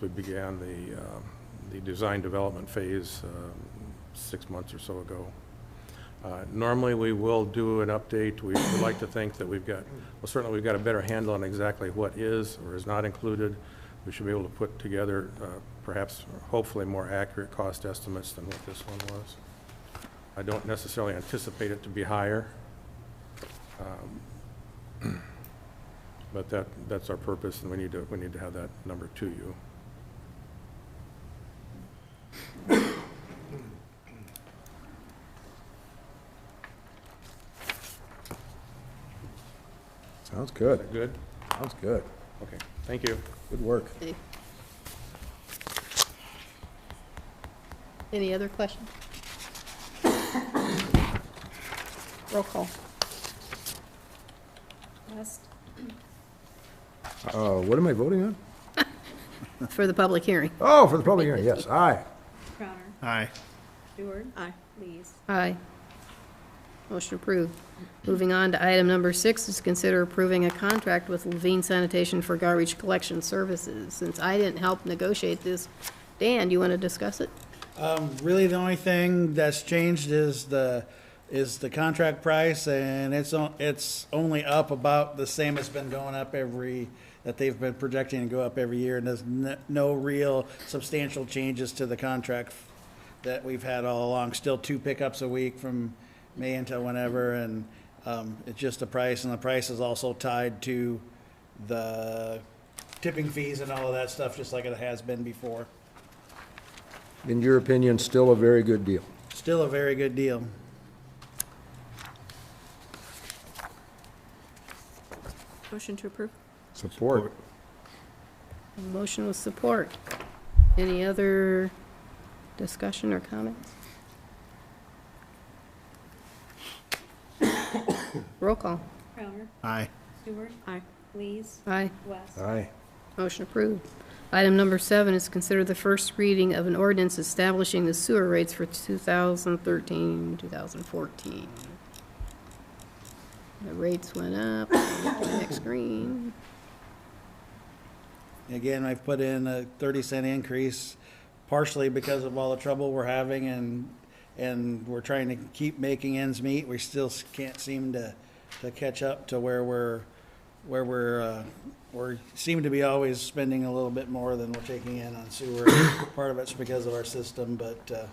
We began the, um, the design development phase um, six months or so ago. Uh, Normally, we will do an update. We would like to think that we've got, well, certainly we've got a better handle on exactly what is or is not included. We should be able to put together uh, perhaps, hopefully, more accurate cost estimates than what this one was. I don't necessarily anticipate it to be higher. Um, But that, that's our purpose, and we need to, we need to have that number to you. Sounds Is good, that good? sounds good. Okay, thank you. Good work. Any other questions? Roll call. West, Uh, What am I voting on? For the public hearing. Oh, for the public hearing, yes, aye. Crowner, Aye. Stewart, Aye. Lees. Aye. Motion approved. Moving on to item number six is consider approving a contract with Levine Sanitation for garbage collection services. Since I didn't help negotiate this, Dan, do you want to discuss it? Um, really, the only thing that's changed is the, is the contract price, and it's, on- it's only up about the same it's been going up every, that they've been projecting to go up every year, and there's n- no real substantial changes to the contract that we've had all along. Still two pickups a week from May until whenever, and, um, it's just the price, and the price is also tied to the tipping fees and all of that stuff, just like it has been before. In your opinion, still a very good deal. Still a very good deal. Motion to approve. Support. Motion with support. Any other discussion or comments? Roll call. Crowner, Aye. Stewart, Aye. Lees, Aye. West. Aye. Motion approved. Item number seven is considered the first reading of an ordinance establishing the sewer rates for 2013, 2014. The rates went up, next green. Again, I've put in a thirty cent increase partially because of all the trouble we're having and, and we're trying to keep making ends meet. We still s- can't seem to, to catch up to where we're, where we're, uh, we're, seem to be always spending a little bit more than we're taking in on sewer. Part of it's because of our system, but, uh,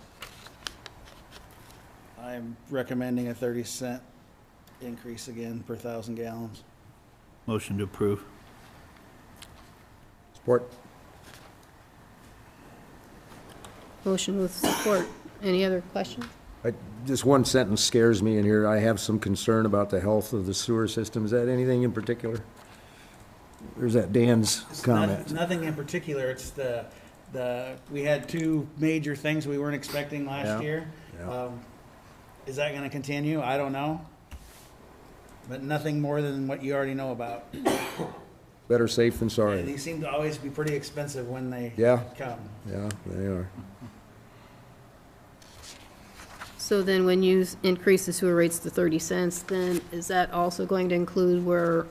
I'm recommending a thirty cent increase again per thousand gallons. Motion to approve. Support. Motion with support. Any other questions? I- Just one sentence scares me in here. I have some concern about the health of the sewer system. Is that anything in particular? There's that Dan's It's not- comment. Nothing in particular, it's the, the, we had two major things we weren't expecting Yeah, last year. yeah. Um, Is that gonna continue? I don't know. But nothing more than what you already know about. Better safe than And sorry. these seem to always be pretty expensive when they Yeah. come. Yeah, they are. So then when you s- increase the sewer rates to 30 cents, then is that also going to include where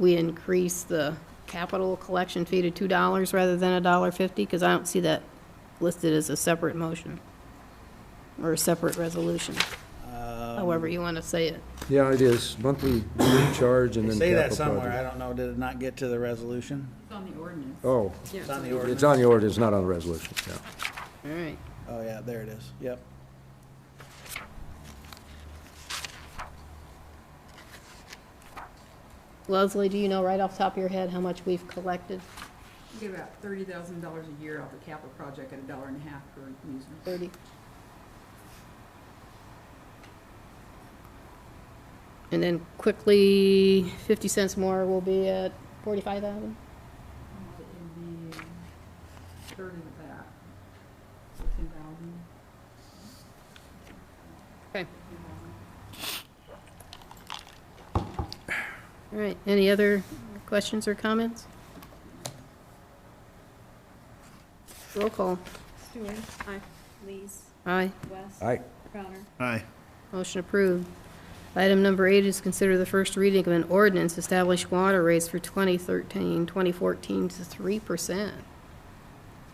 we increase the capital collection fee to $2 rather than $1.50? Because I don't see that listed as a separate motion or a separate resolution, however you want to say it. Yeah, it is. Monthly charge and They then say that capital somewhere, I project. don't know, did it not get to the resolution? Oh, It's on the it's ordinance? on the order, it's not on the resolution, yeah. All right. Oh, yeah, there it is, yep. Leslie, do you know right off the top of your head how much we've collected? We get about thirty thousand dollars a year off the capital project at a dollar and a half per user. 30? And then quickly, 50 cents more will be at 45,000? It would be a third of that, so ten thousand. Okay. All right, any other questions or comments? Roll call. Stewart. Aye. Lees, Aye. West. Aye. Crowner, Aye. Motion approved. Item number eight is consider the first reading of an ordinance establish water rates for 2013, 2014 to 3%.